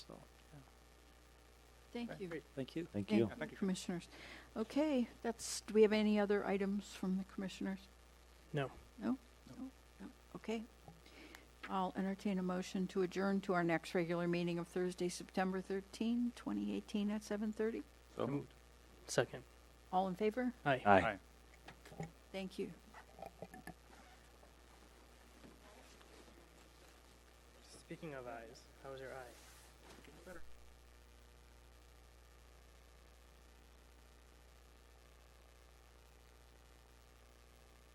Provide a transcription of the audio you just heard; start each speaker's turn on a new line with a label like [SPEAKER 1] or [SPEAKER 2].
[SPEAKER 1] Thank you.
[SPEAKER 2] Thank you.
[SPEAKER 3] Thank
[SPEAKER 1] Thank
[SPEAKER 3] you.
[SPEAKER 1] you, commissioners. Okay, that's, do we have any other items from the commissioners?
[SPEAKER 2] No.
[SPEAKER 1] No? No. Okay. I'll entertain a motion to adjourn to our next regular meeting of Thursday, September 13, 2018 at 7:30.
[SPEAKER 2] So moved. Second.
[SPEAKER 1] All in favor?
[SPEAKER 2] Aye.
[SPEAKER 3] Aye.
[SPEAKER 1] Thank you.
[SPEAKER 2] Speaking of eyes, how was your eye?